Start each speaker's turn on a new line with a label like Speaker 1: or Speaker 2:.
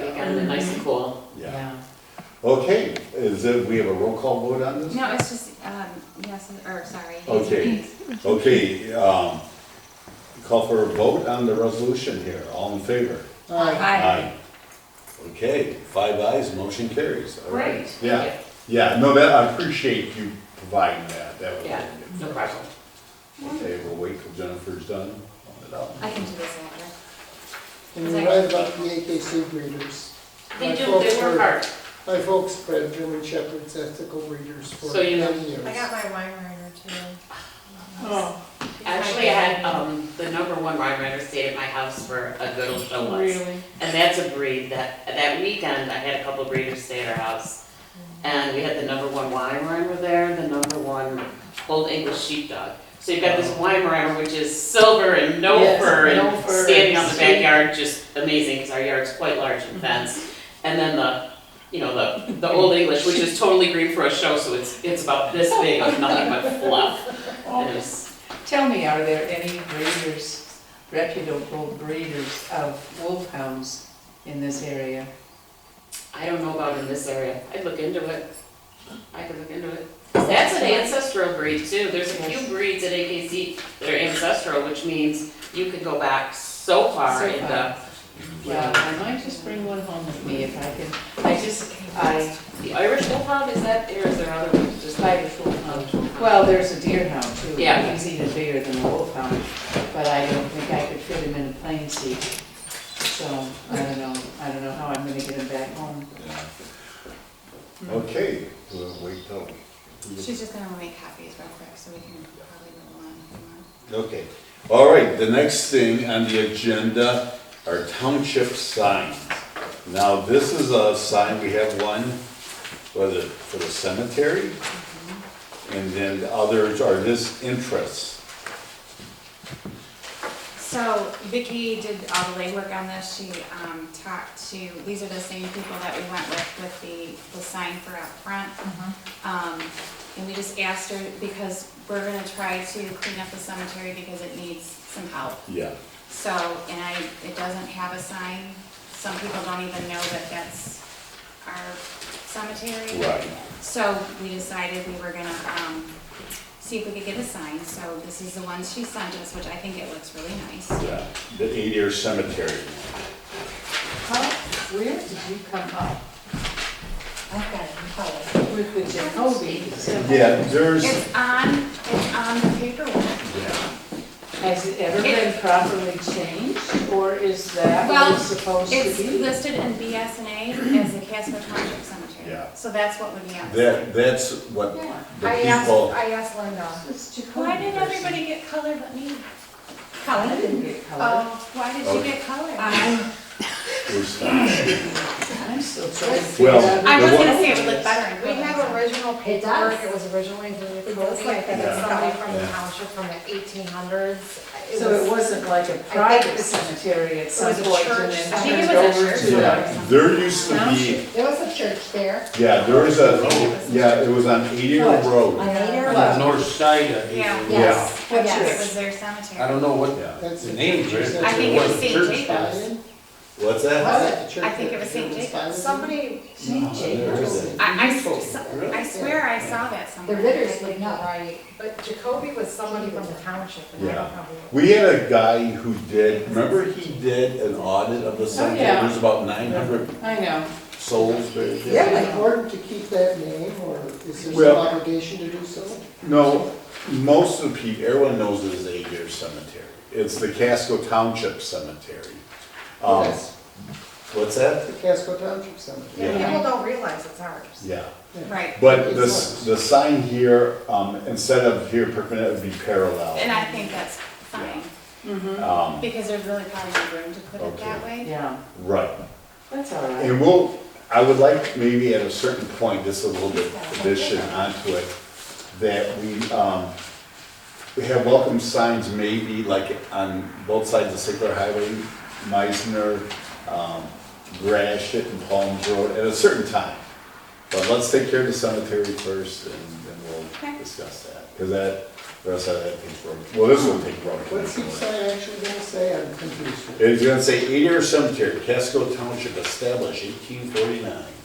Speaker 1: really nice and cool.
Speaker 2: yeah. Okay, is it, we have a roll call vote on this?
Speaker 3: No, it's just, um, yes, or sorry.
Speaker 2: Okay, okay, um, call for a vote on the resolution here, all in favor?
Speaker 3: Hi.
Speaker 2: Okay, five ayes, motion carries. All right.
Speaker 1: Great.
Speaker 2: Yeah, yeah, no, that, I appreciate you providing that, that was.
Speaker 1: Yeah, no problem.
Speaker 2: Okay, we'll wait till Jennifer's done, on it up.
Speaker 3: I can do this later.
Speaker 4: And you're right about the AKC breeders.
Speaker 1: They
Speaker 4: My
Speaker 1: do,
Speaker 4: folks
Speaker 1: they work
Speaker 4: were-
Speaker 1: hard.
Speaker 4: My folks bred German Shepherds as ethical breeders for
Speaker 1: So you know-
Speaker 4: many years.
Speaker 5: I got my wine runner too.
Speaker 6: Oh,
Speaker 1: Actually, I had, um, the number one wine runner stayed at my house for a good, a while. And that's a breed that, that weekend, I had a couple breeders stay at our house. And we had the number one Weimaraner there, the number one Old English Sheepdog. So you've got this Weimaraner, which is silver and no
Speaker 6: Yes,
Speaker 1: fur
Speaker 6: no
Speaker 1: and
Speaker 6: fur
Speaker 1: standing on
Speaker 6: and
Speaker 1: the
Speaker 6: sweet. Mm-hmm.
Speaker 1: backyard, just amazing, because our yard's quite large and fenced. And then the, you know, the, the Old English, which is totally green for a show, so it's, it's about this big of nothing but fluff. And it was,
Speaker 6: Oh, Tell me, are there any breeders, reputable breeders of wolfhounds in this area?
Speaker 1: I don't know about in this area, I'd look into it. I could look into it. That's an ancestral breed too. There's a few breeds at AKC that are ancestral, which means you can go back so far
Speaker 6: So
Speaker 1: in the,
Speaker 6: far. Well, I might just bring one home with me if I can. I just, I,
Speaker 1: the Irish wolfhound, is that, or is there other ones, just like?
Speaker 6: Irish wolfhound. Well, there's a deerhound too.
Speaker 1: Yeah.
Speaker 6: He's even bigger than a wolfhound, but I don't think I could fit him in a plane seat. So I don't know, I don't know how I'm gonna get him back home.
Speaker 2: Yeah. Okay, we'll wait till.
Speaker 3: She's just gonna make copies real quick, so we can probably move on. if you want.
Speaker 2: Okay, all right, the next thing on the agenda are township signs. Now, this is a sign, we have one, was it for the cemetery? And then the others are this interest.
Speaker 3: So Vicky did all the legwork on this. She um, talked to, these are the same people that we went with, with the, the sign for out front. Um, And we just asked her, because we're gonna try to clean up the cemetery because it needs some help.
Speaker 2: Yeah.
Speaker 3: So, and I, it doesn't have a sign. Some people don't even know that that's our cemetery.
Speaker 2: Right.
Speaker 3: So we decided we were gonna, um, see if we could get a sign, so this is the one she sent us, which I think it looks really nice.
Speaker 2: Yeah, the eight-year cemetery.
Speaker 6: How, where did you come up
Speaker 5: I've got it in color.
Speaker 6: with the Jacoby? symbol?
Speaker 2: Yeah, there's,
Speaker 3: It's on, it's on the paperwork.
Speaker 2: yeah,
Speaker 6: Has it ever been properly changed, or is that what
Speaker 3: Well,
Speaker 6: it's supposed
Speaker 3: It's
Speaker 6: to be?
Speaker 3: listed in BSNA as the Casper Township Cemetery.
Speaker 2: Yeah.
Speaker 3: So that's what would be on. the
Speaker 2: that, that's what
Speaker 3: Yeah.
Speaker 2: the
Speaker 5: I asked,
Speaker 2: people,
Speaker 5: I asked Linda.
Speaker 6: It's Jacoby.
Speaker 3: Why did everybody get colored but me?
Speaker 6: I
Speaker 3: Colored?
Speaker 6: didn't get colored.
Speaker 3: Oh, why did you get colored? I
Speaker 2: was,
Speaker 6: I'm still trying to figure
Speaker 2: Well,
Speaker 6: out.
Speaker 2: I
Speaker 3: was
Speaker 2: The one-
Speaker 3: gonna say it would look better in
Speaker 5: We have
Speaker 3: color.
Speaker 5: original paperwork, it was originally
Speaker 7: It
Speaker 5: the
Speaker 7: looks
Speaker 5: code,
Speaker 7: like
Speaker 5: like that
Speaker 2: Yeah.
Speaker 5: it's somebody from the
Speaker 2: Yeah.
Speaker 5: township from the eighteen hundreds.
Speaker 6: So it wasn't like a private cemetery at some
Speaker 5: was a
Speaker 6: point, and
Speaker 5: church
Speaker 6: then
Speaker 5: cemetery.
Speaker 3: I think
Speaker 6: turned
Speaker 3: it was a
Speaker 6: over
Speaker 3: church
Speaker 6: to
Speaker 2: yeah,
Speaker 6: a
Speaker 2: there used to be,
Speaker 6: township.
Speaker 5: There was a church there.
Speaker 2: yeah, there was a, yeah, it was on eight-year
Speaker 6: What?
Speaker 2: road.
Speaker 5: On Nader?
Speaker 6: What?
Speaker 8: North side of
Speaker 3: Yeah.
Speaker 5: Yes,
Speaker 8: Hazel.
Speaker 6: Yeah.
Speaker 3: Yes, it
Speaker 5: yes.
Speaker 3: was their
Speaker 8: I
Speaker 3: cemetery.
Speaker 8: don't know what
Speaker 2: Yeah.
Speaker 4: That's
Speaker 8: the name of it.
Speaker 3: I think it was
Speaker 8: a
Speaker 3: St.
Speaker 8: church
Speaker 3: Jacob's.
Speaker 8: house.
Speaker 2: What's that?
Speaker 3: I think it was St. Jacob's.
Speaker 5: Somebody,
Speaker 2: No, there isn't.
Speaker 3: I, I, s- I swear I saw that
Speaker 7: The
Speaker 3: somewhere.
Speaker 7: Ritter's would know.
Speaker 5: right, but Jacoby was somebody from the township and I
Speaker 2: Yeah.
Speaker 5: don't know who. it was.
Speaker 2: We had a guy who did, remember he did an audit of the cemetery?
Speaker 6: yeah.
Speaker 2: There's about nine hundred
Speaker 6: I know.
Speaker 2: souls buried there.
Speaker 4: Is it important to keep that name, or is there
Speaker 2: Well-
Speaker 4: some obligation to do so?
Speaker 2: No, most of the people, everyone knows it is Ager Cemetery. It's the Casco Township Cemetery. Um,
Speaker 4: Yes,
Speaker 2: What's that?
Speaker 4: the Casco Township Cemetery.
Speaker 2: Yeah.
Speaker 5: People don't realize it's ours.
Speaker 2: Yeah,
Speaker 3: Right,
Speaker 2: but this, the sign here, um, instead of here perpendicular, it would be
Speaker 3: and
Speaker 2: parallel.
Speaker 3: I think that's fine, Mm-hmm.
Speaker 2: Um,
Speaker 3: because there's really probably no room to put it that way.
Speaker 6: Yeah,
Speaker 2: right.
Speaker 6: that's all right.
Speaker 2: And we'll, I would like maybe at a certain point, just a little bit addition onto it, that we, um, we have welcome signs maybe like on both sides of Sickler Highway, Meisner, um, Grashit and Palms Road at a certain time. But let's take care of the cemetery first and then we'll
Speaker 3: Okay.
Speaker 2: discuss that, because that, The rest of that takes road, well, this will take road.
Speaker 4: What's the
Speaker 2: commission work.
Speaker 4: sign actually gonna say? I'm confused.
Speaker 2: It's gonna say eight-year cemetery, Casco Township established eighteen forty-nine.